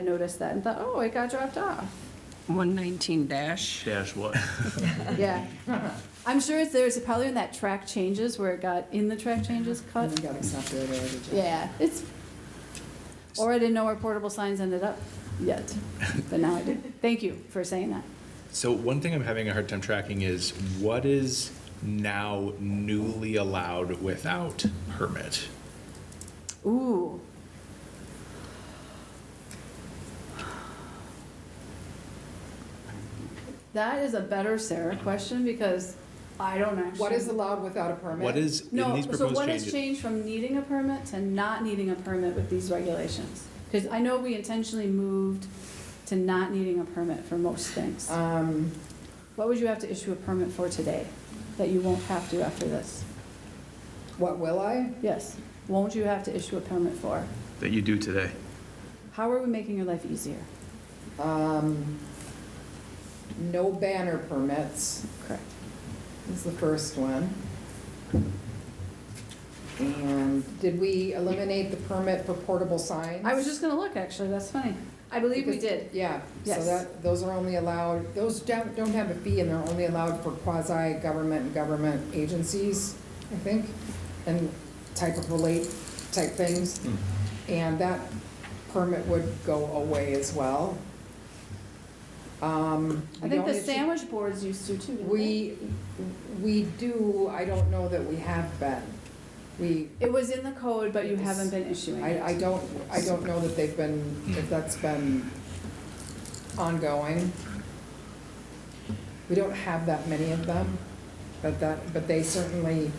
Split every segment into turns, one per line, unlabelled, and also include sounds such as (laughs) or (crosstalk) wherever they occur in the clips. I noticed that and thought, oh, it got dropped off.
(laughs)
119 dash.
Dash what?
Yeah. I'm sure it's, there's probably in that track changes where it got in the track changes cut.
Mm-hmm. And we got accepted or rejected.
Yeah, it's, or I didn't know where portable signs ended up
(laughs)
yet, but now I do. Thank you for saying that.
(laughs) So one thing I'm having a hard time tracking is what is now newly allowed without permit?
Ooh. That is a better Sarah question because I don't actually.
What is allowed without a permit?
What is in
No,
these
so
proposed
what has
changes?
changed from needing a permit to not needing a permit with these regulations? Because I know we intentionally moved to not needing a permit for most things.
Um,
What would you have to issue a permit for today that you won't have to after this?
what will I?
Yes, won't you have to issue a permit for?
That you do today.
How are we making your life easier?
Um, no banner permits
Correct.
is the first one. And did we eliminate the permit for portable signs?
I was just gonna look, actually, that's funny. I believe we
Because-
did.
Yeah, so
Yes.
that, those are only allowed, those don't, don't have a fee and they're only allowed for quasi-government and government agencies, I think, and type of relate, type things. And that permit would go away as well. Um,
I
we
think
don't
the
issue-
sandwich boards used to too, didn't they?
We, we do, I don't know that we have been. We,
It was in the code, but you haven't been issuing
I, I
it.
don't, I don't know that they've been, if that's been ongoing. We don't have that many of them, but that, but they certainly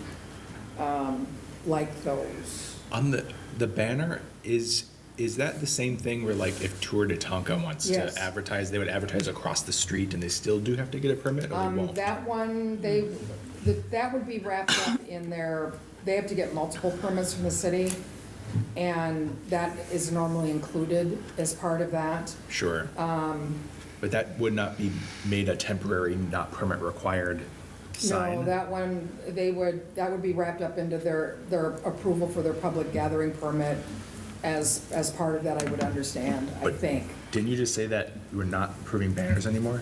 um, like those.
On the, the banner, is, is that the same thing where like if Tour de Tonka wants
Yes.
to advertise, they would advertise across the street and they still do have to get a permit or they
Um,
won't?
That one, they, th- that would be wrapped up in their, they have to get multiple permits from the city, and that is normally included as part of that.
Sure.
um,
But that would not be made a temporary, not permit required sign?
No, that one, they would, that would be wrapped up into their, their approval for their public gathering permit as, as part of that, I would understand, I
But-
think.
Didn't you just say that you were not approving banners anymore?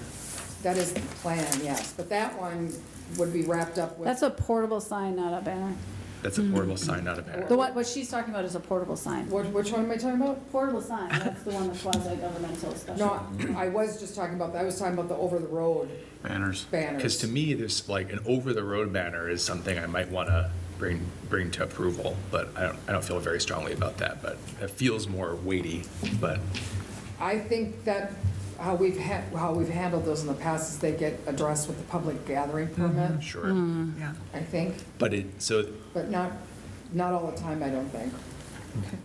That is the plan, yes, but that one would be wrapped up
That's
with,
a portable sign, not a banner.
That's a portable sign, not a banner.
The one, what she's talking about is a portable sign.
What- which one am I talking about?
Portable sign, that's the one that's quasi-governmental special.
No, I was just talking about, I was talking about the over-the-road
Banners.
banners.
Because to me, this, like, an over-the-road banner is something I might want to bring, bring to approval, but I don't, I don't feel very strongly about that, but it feels more weighty, but,
I think that how we've had, how we've handled those in the past is they get addressed with the public gathering
Mm-hmm.
permit,
sure.
Mm.
Yeah.
I think,
But it, so,
but not, not all the time, I don't think.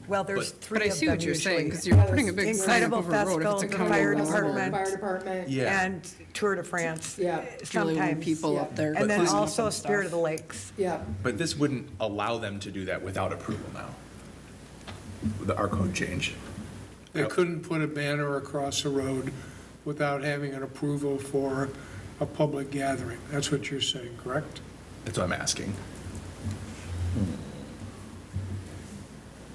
Well, there's
But-
three
But I
of
see
them
what you're saying,
usually.
because you're putting a big sign up
Incredible
over a road if
Festival,
it's a
the
county
fire
road.
department.
Fire department.
yeah.
And Tour de France.
Yeah.
Really, when
Sometimes.
people up
yeah.
there.
And then
cleaning up
also
and
Spirit of the
stuff.
Lakes.
Yeah,
But this wouldn't allow them to do that without approval now. The, our code change.
They couldn't put a banner across a road without having an approval for a public gathering. That's what you're saying, correct?
That's what I'm asking.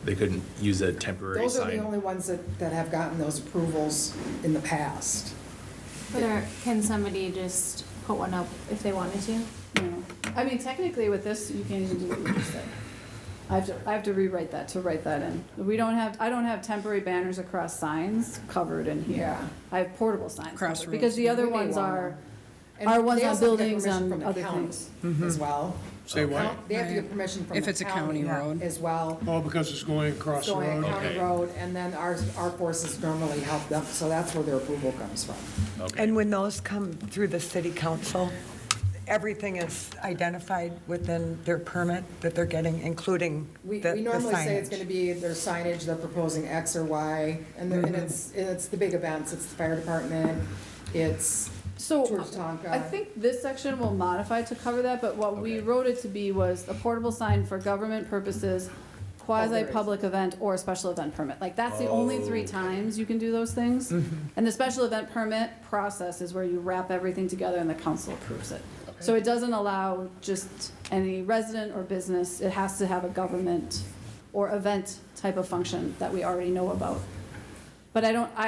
They couldn't use a temporary
those are the
sign.
only ones that, that have gotten those approvals in the past.
But are, can somebody just put one up if they wanted to?
No. I mean, technically with this, you can't even do what you just said. I have to, I have to rewrite that to write that in. We don't have, I don't have temporary banners across signs covered in here.
Yeah.
I have portable signs. covered,
Crossroads.
Because the other
We may
ones
want
are,
And
Our ones
they
on
also have to get
buildings
permission
and
from the
other
county
things.
As well.
Mm-hmm. Say what?
They have to get
Right.
permission from
If
the
it's a county
county
road.
as well.
All because it's going across a
Going
road?
county
Okay.
road, and then our, our forces normally help them, so that's where their approval comes from.
Okay.
And when those come through the city council, everything is identified within their permit that they're getting, including the
We,
the
we normally say it's
signage.
gonna be their signage, they're proposing X or Y, and
Mm-hmm.
then and it's, and it's the big events, it's the fire department, it's
so
George Tonka.
I think this section will modify to cover that, but what we
Okay.
wrote it to be was a portable sign for government purposes, quasi-public event or a special event permit. Like, that's the only three times you can do those things. And the special event permit process is where you wrap everything together and the council approves it. So it doesn't allow just any resident or business, it has to have a government or event type of function that we already know about. But I don't, I